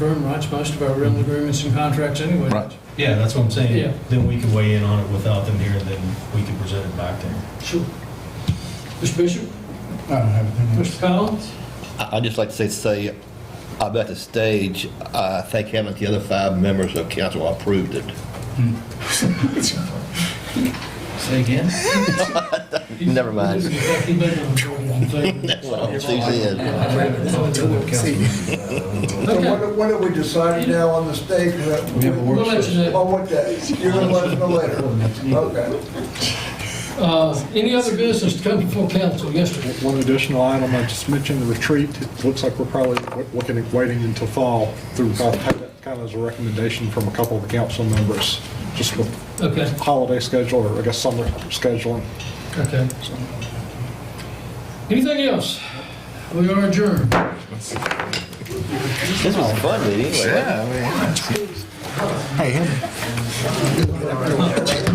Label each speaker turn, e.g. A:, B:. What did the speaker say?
A: firm writes most of our rental agreements and contracts anyway.
B: Right.
C: Yeah, that's what I'm
A: Yeah.
C: saying. Then we can weigh in on it without them here, and then we can present it back to them.
A: Sure. Mr. Bishop,
D: I don't have anything else.
A: Mr. Collins,
B: I- I'd just like to say, say, I'm at the stage, I thank heaven the other five members of council approved it.
E: Hmm. Say again?
B: Never mind.
A: This is exactly better than what
B: Well, Susie is.
F: So
A: Okay.
F: when, when are we deciding now on the state?
E: We have a
A: We'll let you know.
F: On what day? You're gonna let us know later? Okay.
A: Uh, Any other business to come before council? Yes, sir.
G: One additional item, I just mentioned the retreat. It looks like we're probably w- looking at waiting until fall through, I'll have that kind of as a recommendation from a couple of the council members, just with
A: Okay,
G: holiday schedule, or I guess summer scheduling.
A: okay. Anything else? We are adjourned.
B: This was fun, meeting. anyway.
D: Hey, Henry.